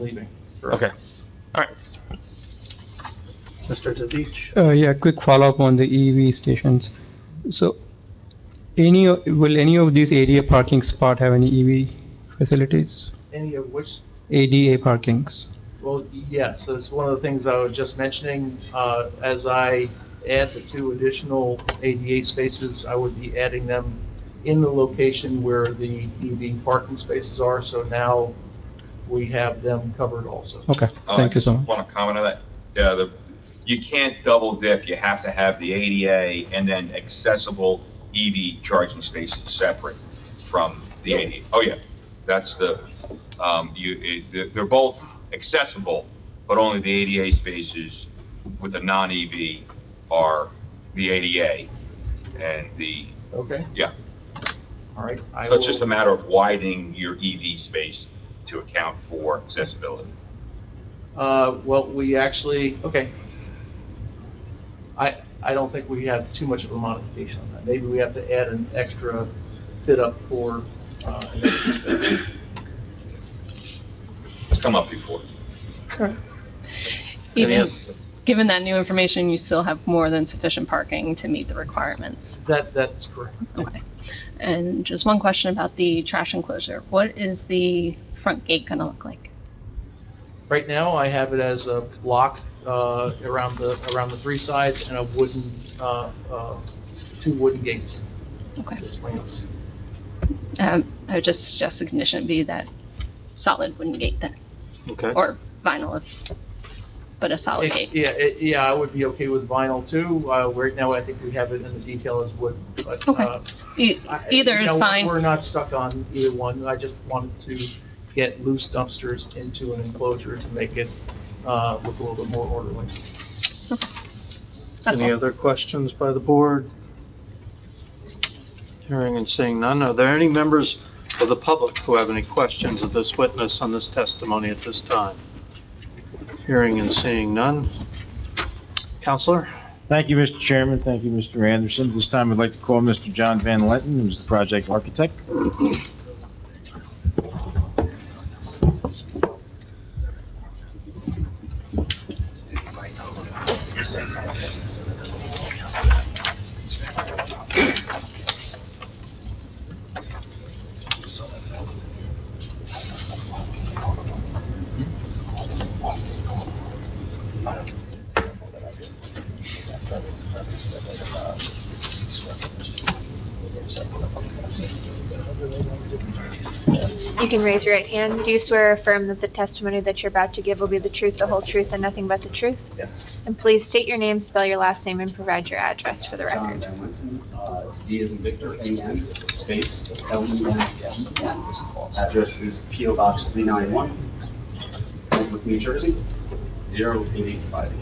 leaving. Okay, all right. Mr. Tadich? Uh, Yeah, quick follow-up on the EV stations. So any, o- will any of these ADA parking spot have any EV facilities? Any of which, ADA parkings? well, yes, that's one of the things I was just mentioning. Uh, As I add the two additional ADA spaces, I would be adding them in the location where the EV parking spaces are, so now we have them covered also. Okay, thank you so I Uh, just much. want to comment on that. Yeah, the, you can't double dip, you have to have the ADA and then accessible EV charging stations separate from the ADA. Oh, yeah, that's the, um, you, it, they're- they're both accessible, but only the ADA spaces with a non-EV are the ADA and the, Okay? yeah. All right. I So it's just a will- matter of widening your EV space to account for accessibility. Uh, well, we actually, okay. I, I don't think we have too much of a modification on that. Maybe we have to add an extra fit up for, uh, an extra space. It's come up before. Correct. Any Even, other- given that new information, you still have more than sufficient parking to meet the requirements. That, that's correct. Okay. And just one question about the trash enclosure. What is the front gate going to look like? Right now, I have it as a block, uh, around the, around the three sides and a wooden, uh, uh, two wooden gates. Okay. That's my- Um, I would just suggest the condition be that solid wooden gate then, Okay, or vinyl, if, but a solid It- gate. Yeah, it- yeah, I would be okay with vinyl too. Uh, right now, I think we have it in the detail as wood, but, Okay. uh, E- I- Either you is know, We're fine. not stuck on either one. I just wanted to get loose dumpsters into an enclosure to make it uh, look a little bit more orderly. That's any all. other questions by the board? Hearing and seeing none, are there any members of the public who have any questions of this witness on this testimony at this time? Hearing and seeing none. Counselor? Thank you, Mr. Chairman. Thank you, Mr. Anderson. This time, I'd like to call Mr. John Van Lenton, who's the project architect. You can raise your right hand. Do you swear or affirm that the testimony that you're about to give will be the truth, the whole truth, and nothing but the truth? Yes. And please state your name, spell your last name, and provide your address for the record. John Van Winston, uh, it's D as in Victor, A N, space, L E N, S, N. Address is P O Box three nine one, Oakbrook, New Jersey, zero eight eight five eight.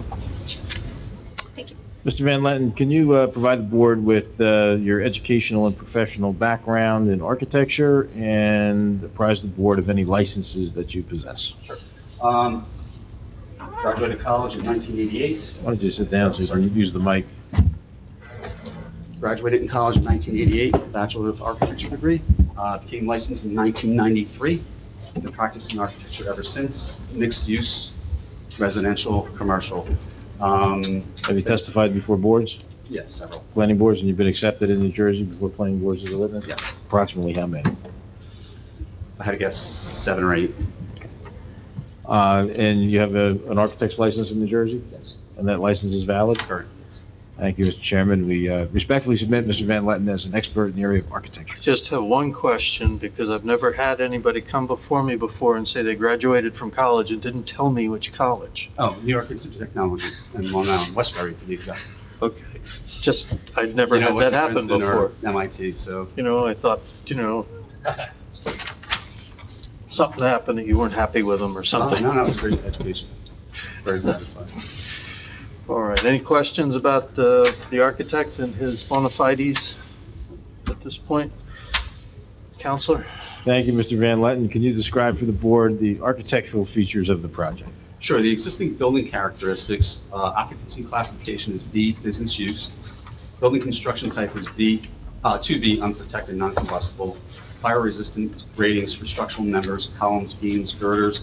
Mr. Van Lenton, can you uh, provide the board with uh, your educational and professional background in architecture and apprise the board of any licenses that you possess? Um, graduated college in nineteen eighty-eight, Why don't you sit down so you can use the mic? graduated in college in 1988, Bachelor of Architecture degree, uh, became licensed in 1993, been practicing architecture ever since, mixed use, residential, commercial. Um, Have you testified before boards, Yes, several, planning boards, and you've been accepted in New Jersey before planning boards as a witness? yes. Approximately how many? I had to guess seven or eight. Uh, And you have a- an architect's license in New Jersey, Yes. and that license is valid? Correct. Thank you, Mr. Chairman. We uh, respectfully submit Mr. Van Letten as an expert in the area of architecture. Just have one question, because I've never had anybody come before me before and say they graduated from college and didn't tell me which college. Oh, New York Institute of Technology in Long Island, Westbury, to be exact. Okay, just, I'd never You know, had that happen Westbury, Princeton, before. or MIT, so, You know, I thought, you know, something happened that you weren't happy with them or Oh, uh, no, something. no, no, it's great education. Very satisfying. All right, any questions about the, the architect and his bona fides at this point? Counselor? Thank you, Mr. Van Letten. Can you describe for the board the architectural features of the project? Sure, the existing building characteristics, uh, occupancy classification is B, business use. Building construction type is B, uh, 2B, unprotected, non-combustible. Fire resistance ratings for structural members, columns, beams, girders,